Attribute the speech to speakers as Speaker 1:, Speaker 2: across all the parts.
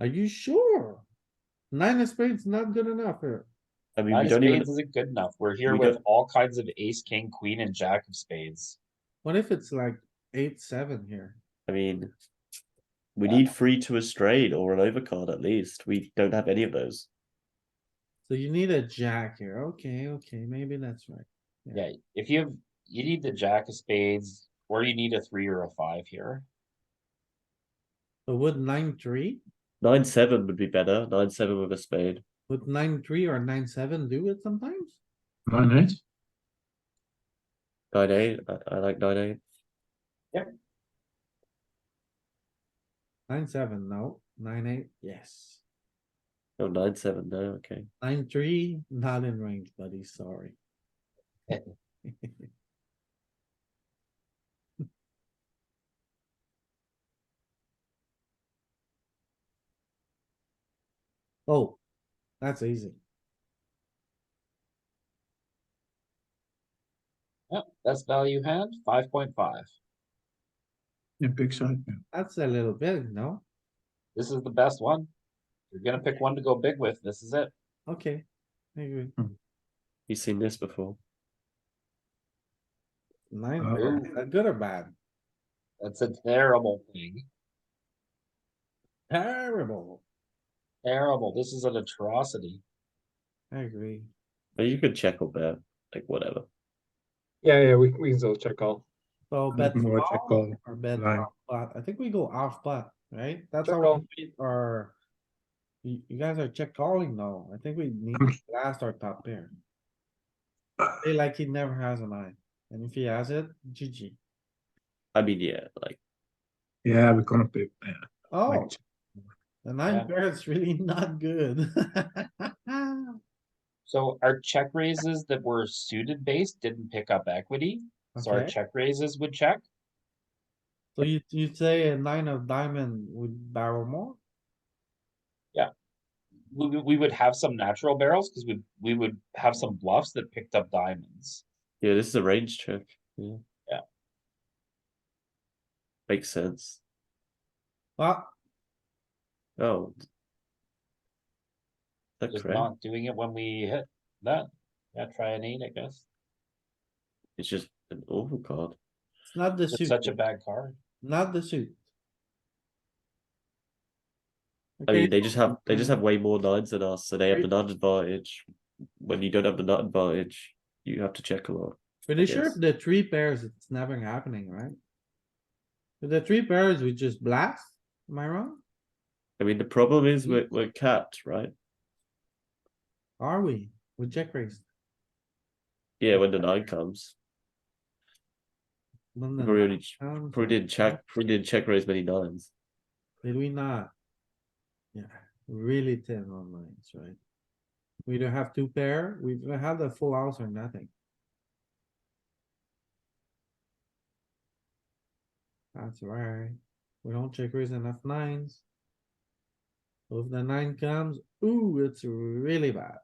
Speaker 1: Are you sure? Nine of spades not good enough here.
Speaker 2: I mean,
Speaker 3: Nine
Speaker 2: we
Speaker 3: of
Speaker 2: don't
Speaker 3: spades
Speaker 2: even,
Speaker 3: isn't good enough. We're here
Speaker 2: we
Speaker 3: with
Speaker 2: don't-
Speaker 3: all kinds of ace, king, queen, and jack of spades.
Speaker 1: What if it's like eight, seven here?
Speaker 2: I mean, we need three to a straight or an overcard at least. We don't have any of those.
Speaker 1: So you need a jack here. Okay, okay, maybe that's right.
Speaker 3: Yeah, if you have, you need the jack of spades, or you need a three or a five here.
Speaker 1: But would nine, three,
Speaker 2: Nine, seven would be better. Nine, seven with a spade.
Speaker 1: would nine, three or nine, seven do it sometimes?
Speaker 4: Nine eight.
Speaker 2: Nine, eight. I, I like nine, eight.
Speaker 1: Nine, seven, no. Nine, eight, yes.
Speaker 2: Oh, nine, seven. No, okay.
Speaker 1: Nine, three, not in range, buddy, sorry. Oh, that's easy.
Speaker 3: Yep, that's value hand, five point five.
Speaker 4: Yeah, big side. yeah.
Speaker 1: That's a little bit, no?
Speaker 3: This is the best one. You're gonna pick one to go big with. This is it.
Speaker 1: Okay, I agree.
Speaker 2: You've seen this before.
Speaker 1: Nine,
Speaker 4: Uh,
Speaker 1: is that good or bad?
Speaker 3: That's a terrible thing.
Speaker 1: Terrible.
Speaker 3: Terrible. This is an atrocity.
Speaker 1: I agree.
Speaker 2: But you could check or bet, like whatever.
Speaker 5: Yeah, yeah, we, we can still check all.
Speaker 1: So
Speaker 4: Look
Speaker 1: bet
Speaker 4: more check
Speaker 1: small
Speaker 4: call
Speaker 1: or bet
Speaker 4: line.
Speaker 1: off pot. I think we go off pot, right? That's
Speaker 5: Check
Speaker 1: how
Speaker 5: call.
Speaker 1: we are. You, you guys are check calling though. I think we need
Speaker 4: Um,
Speaker 1: to blast our top pair. Play like he never has a nine. And if he has it, GG.
Speaker 2: I mean, yeah, like
Speaker 4: Yeah, we're gonna be. Yeah,
Speaker 1: Oh,
Speaker 4: like,
Speaker 1: the
Speaker 3: Yeah.
Speaker 1: nine pair is really not good.
Speaker 3: So our check raises that were suited based didn't pick up equity. So our
Speaker 1: Okay.
Speaker 3: check raises would check.
Speaker 1: So you, you say a nine of diamond would barrel more?
Speaker 3: We, we- we would have some natural barrels because we, we would have some bluffs that picked up diamonds.
Speaker 2: yeah, this is a range check. Yeah.
Speaker 3: Yeah.
Speaker 2: Makes sense.
Speaker 1: Well,
Speaker 2: Oh. Is that
Speaker 3: Just
Speaker 2: correct?
Speaker 3: not doing it when we hit that. Yeah, try an eight, I guess.
Speaker 2: It's just an awful card.
Speaker 1: it's not the
Speaker 3: It's
Speaker 1: suit,
Speaker 3: such a bad card.
Speaker 1: not the suit.
Speaker 2: I
Speaker 1: Okay,
Speaker 2: mean, they just have they just
Speaker 1: Mhm.
Speaker 2: have way more nines than us, so they have
Speaker 1: Right.
Speaker 2: the nut advantage. When you don't have the nut advantage, you have to check a lot.
Speaker 1: Pretty sure
Speaker 2: Yes.
Speaker 1: if the three pairs, it's never happening, right? If the three pairs, we just blast, am I wrong?
Speaker 2: I mean, the problem is
Speaker 1: Mhm.
Speaker 2: we're we're capped, right?
Speaker 1: Are we? With check raise.
Speaker 2: Yeah, when the nine comes,
Speaker 1: When the
Speaker 2: we only ch-
Speaker 1: nine comes,
Speaker 2: probably didn't check, probably didn't check raise many nines.
Speaker 1: Did we not? Yeah, really thin on lines, right? We don't have two pair, we don't have the full house or nothing. That's right, we don't check raise enough nines. So If the nine comes, ooh, it's really bad.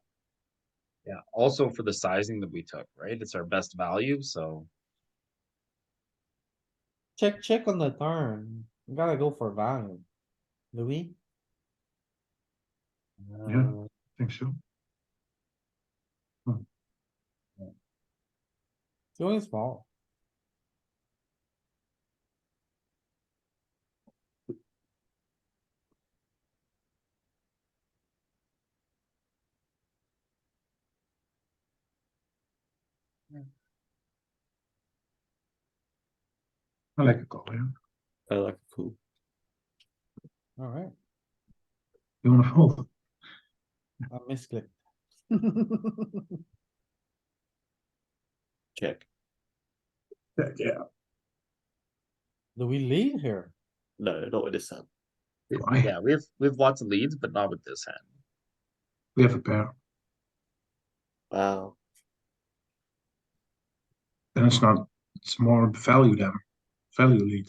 Speaker 3: Yeah, also for the sizing that we took, right? It's our best value, so.
Speaker 1: Check, check on the turn. We gotta go for value. Louis,
Speaker 3: um,
Speaker 4: Yeah. I think so.
Speaker 1: it's only small.
Speaker 4: I like a call. Yeah.
Speaker 2: I like cool.
Speaker 1: Alright,
Speaker 4: You wanna fold?
Speaker 1: I misclicked.
Speaker 2: Check.
Speaker 4: Yeah, yeah.
Speaker 1: Do we lead here?
Speaker 2: No, not with this hand.
Speaker 4: Why?
Speaker 3: Yeah, we have, we have lots of leads, but not with this hand.
Speaker 4: We have a pair.
Speaker 2: Wow.
Speaker 4: Then it's not. It's more value than value lead.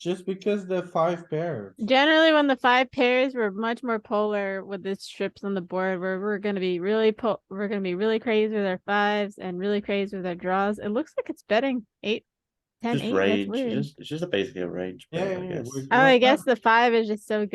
Speaker 1: Just because the five pair.
Speaker 6: Generally, when the five pairs, we're much more polar with the strips on the board where we're gonna be really po- we're gonna be really crazy with our fives and really crazy with our draws. It looks like it's betting eight, ten,
Speaker 2: Just
Speaker 6: eight. That's
Speaker 2: range.
Speaker 6: weird.
Speaker 2: It's just it's just a basically a range.
Speaker 1: Yeah, yeah,
Speaker 2: bet, I
Speaker 1: yeah,
Speaker 2: guess.
Speaker 1: we're-
Speaker 6: Oh, I
Speaker 1: Well,
Speaker 6: guess the five is just so